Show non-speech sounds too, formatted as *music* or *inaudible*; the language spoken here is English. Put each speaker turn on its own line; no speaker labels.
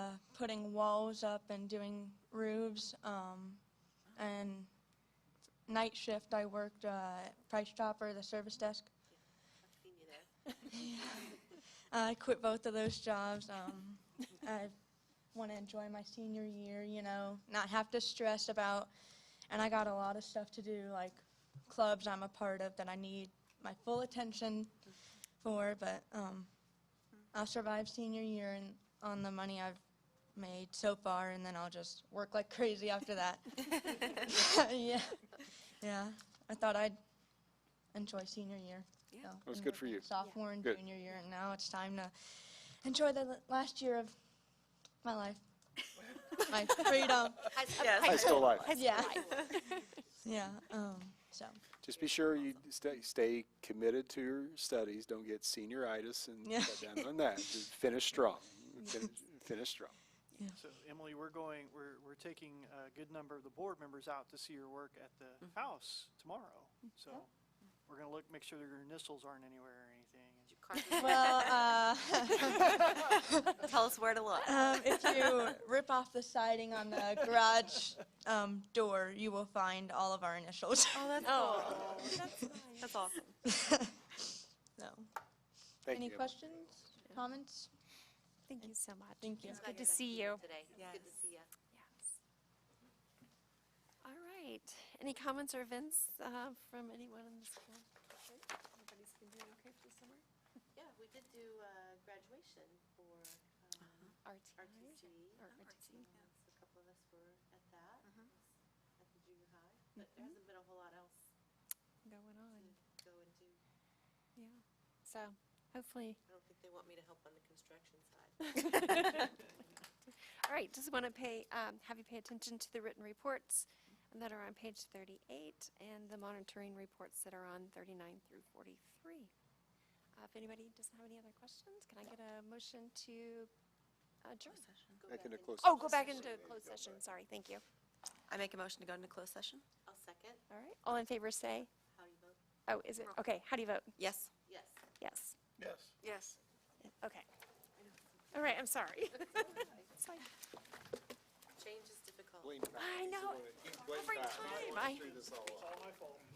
putting walls up and doing roofs. Um, and night shift, I worked uh, at Price Chopper, the service desk.
I've seen you there.
I quit both of those jobs. Um, I want to enjoy my senior year, you know, not have to stress about. And I got a lot of stuff to do, like clubs I'm a part of that I need my full attention for. But um, I'll survive senior year and on the money I've made so far, and then I'll just work like crazy after that. *laughs* yeah, yeah. I thought I'd enjoy senior year.
Yeah.
so
Well,
been
it's good for
working
you.
Sophomore and
Good.
junior year, and now it's time to enjoy the l- last year of my life, my freedom.
High school life.
yeah, *laughs*
*laughs*
yeah. Um, so
Just be sure you stay, stay committed to your studies. Don't get senioritis and
Yeah.
get down on that. Just finish strong.
*laughs*
Finish, finish strong.
So Emily, we're going, we're, we're taking a good number of the board members out to see your work at the house tomorrow. So we're going to look, make sure that your initials aren't anywhere or anything.
Did you carve it?
*laughs* well,
Tell us where to look.
uh, um, if you rip off the siding on the garage um, door, you will find all of our initials.
Oh, that's
*laughs* Oh.
cool. That's awesome.
*laughs* so,
Thank
any
you. Emily.
questions, comments?
Thank you so much.
Thank you.
It's good to see you.
Today. It's Good to see you.
Yes. All right. Any comments or events uh, from anyone in the school? district? Everybody's been doing okay for the summer?
Yeah, we did do uh, graduation for um,
RTC?
RTC.
Or RTC.
Um, so A couple of us were at that, at the junior high. But there hasn't been a whole lot else
Going
to
on,
go and do.
yeah. So
I
hopefully,
don't think they want me to help on the construction side.
all right, just want to pay, um, have you pay attention to the written reports that are on page 38 and the monitoring reports that are on 39 through 43. Uh, If anybody doesn't have any other questions, can I get a motion to adjourn?
Go back
Back into
in.
closed
Oh, go back
session.
into closed session, sorry, thank you.
I make a motion to go into closed session?
I'll second.
All right, all in favor say,
How do you vote?
oh, is it, okay, how do you vote?
Yes.
Yes.
Yes,
Yes.
okay. All right, I'm sorry. *laughs* It's like,
Change is difficult.
Blaine Powell,
I
he's the
know,
one that- Blaine
every
Powell, he's the one
time
that
I-
screwed this all up.
All my fault.